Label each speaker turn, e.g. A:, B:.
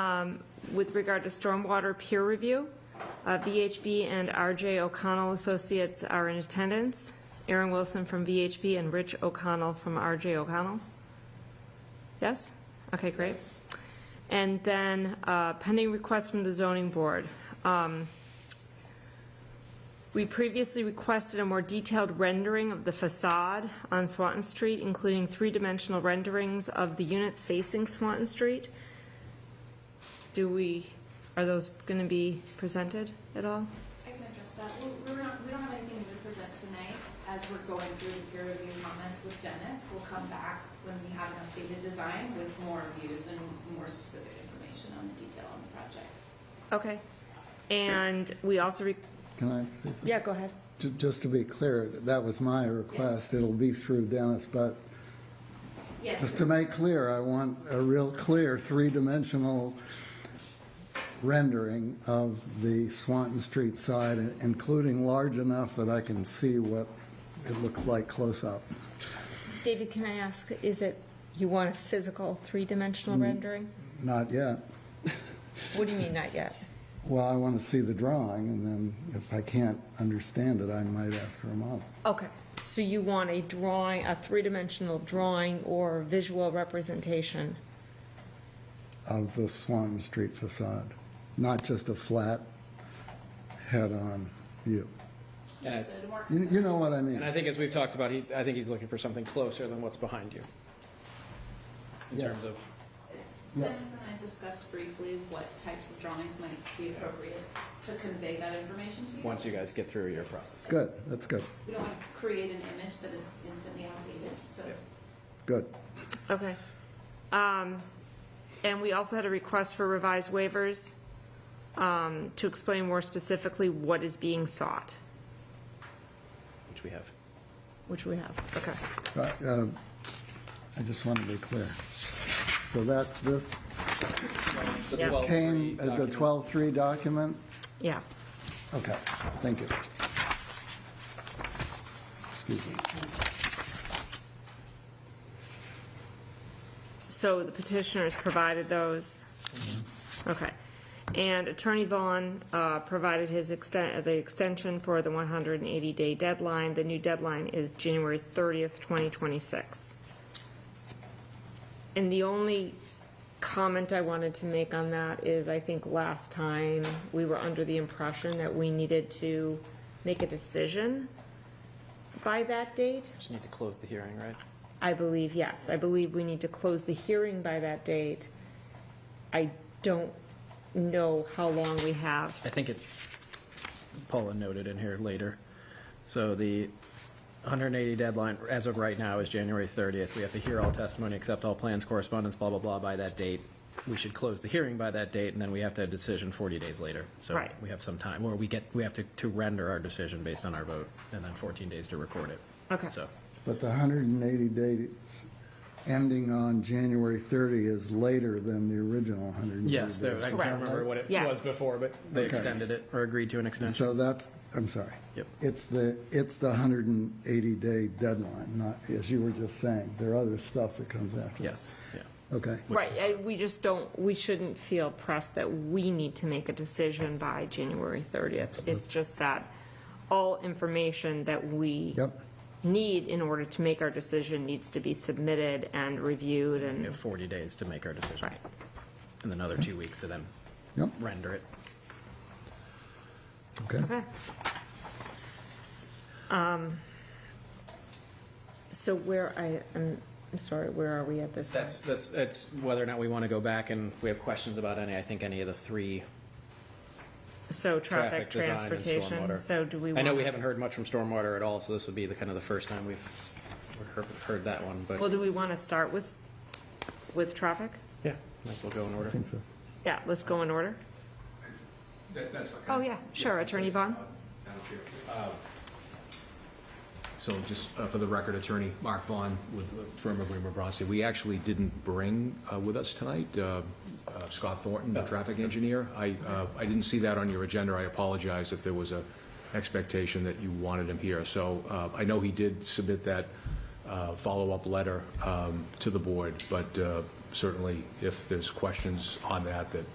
A: um, with regard to stormwater peer review. Uh, VHB and RJ O'Connell Associates are in attendance. Aaron Wilson from VHB and Rich O'Connell from RJ O'Connell. Yes? Okay, great. And then uh, pending request from the zoning board. Um, We previously requested a more detailed rendering of the facade on Swanton Street, including three-dimensional renderings of the units facing Swanton Street. Do we, are those going to be presented at all?
B: I can address that. We- We're not, we don't have anything to present tonight as we're going through the peer review comments with Dennis. We'll come back when we have an updated design with more views and more specific information on the detail on the project.
A: Okay. And we also, re-
C: Can I say something?
A: yeah, go ahead.
C: Ju- Just to be clear, that was my request. It'll be through Dennis, but
B: Yes,
C: just to make clear, I want a real clear three-dimensional rendering of the Swanton Street side, including large enough that I can see what it looks like close up.
A: David, can I ask, is it, you want a physical three-dimensional rendering?
C: Not yet.
A: What do you mean, not yet?
C: Well, I want to see the drawing, and then if I can't understand it, I might ask for a model.
A: Okay, so you want a drawing, a three-dimensional drawing or visual representation?
C: of the Swanton Street facade, not just a flat head-on view.
D: And I,
B: so to work-
C: You you know what I
D: and
C: mean?
D: I think as we've talked about, he's, I think he's looking for something closer than what's behind you. In
C: Yeah.
D: terms of,
C: Yeah.
B: Dennis and I discussed briefly what types of drawings might be appropriate to convey that information to you.
D: once you guys get through your process.
C: Good, that's good,
B: We don't want to create an image that is instantly outdated, so
C: good.
A: Okay. Um, And we also had a request for revised waivers um, to explain more specifically what is being sought,
D: Which we have.
A: which we have. Okay.
C: Uh, uh, I just want to be clear. So that's this
D: The
A: Yeah.
D: 12-3
C: came, uh, the
D: document.
C: 12-3 document?
A: Yeah.
C: Okay, thank you. Excuse me.
A: So the petitioners provided those? Okay. And Attorney Vaughn uh, provided his extent, the extension for the 180-day deadline. The new deadline is January 30th, 2026. And the only comment I wanted to make on that is, I think last time, we were under the impression that we needed to make a decision by that date.
D: Just need to close the hearing, right?
A: I believe, yes, I believe we need to close the hearing by that date. I don't know how long we have.
D: I think it, Paula noted in here later. So the 180 deadline, as of right now, is January 30th. We have to hear all testimony, accept all plans, correspondence, blah, blah, blah, by that date. We should close the hearing by that date, and then we have to have a decision 40 days later. So
A: Right.
D: we have some time, or we get, we have to, to render our decision based on our vote, and then 14 days to record it.
A: Okay.
D: So,
C: But the 180 days ending on January 30 is later than the original 180 days.
D: yes, there- I
A: Correct.
D: can't remember what it
A: Yes.
D: was before, but they
C: Okay.
D: extended it, or agreed to an extension.
C: So that's, I'm sorry.
D: Yep.
C: It's the, it's the 180-day deadline, not, as you were just saying, there are other stuff that comes after.
D: Yes, yeah.
C: Okay,
A: Right, I- we just don't, we shouldn't feel pressed that we need to make a decision by January 30th. It's just that all information that we
C: yep,
A: need in order to make our decision needs to be submitted and reviewed
D: We
A: and,
D: have 40 days to make our decision,
A: right.
D: and then another two weeks to then
C: yep,
D: render it.
C: okay.
A: Okay. Um, So where, I, I'm I'm sorry, where are we at this point?
D: That's, that's, that's whether or not we want to go back and if we have questions about any, I think any of the three
A: So
D: traffic
A: traffic,
D: design and
A: transportation,
D: stormwater.
A: so do we want?
D: I know we haven't heard much from stormwater at all, so this would be the kind of the first time we've heard, heard that one,
A: Well,
D: but
A: do we want to start with, with traffic?
D: yeah, might as well go in order.
C: I think so.
A: Yeah, let's go in order.
E: That- That's okay.
A: Oh, yeah, sure, Attorney Vaughn?
E: Madam Chair. Uh, So just uh, for the record, Attorney Mark Vaughn with the firm of Raymer Bronstein. We actually didn't bring uh, with us tonight uh, uh, Scott Thornton, the traffic engineer. I, uh, I didn't see that on your agenda. I apologize if there was a expectation that you wanted him here. So uh, I know he did submit that uh, follow-up letter um, to the board, but uh, certainly if there's questions on that that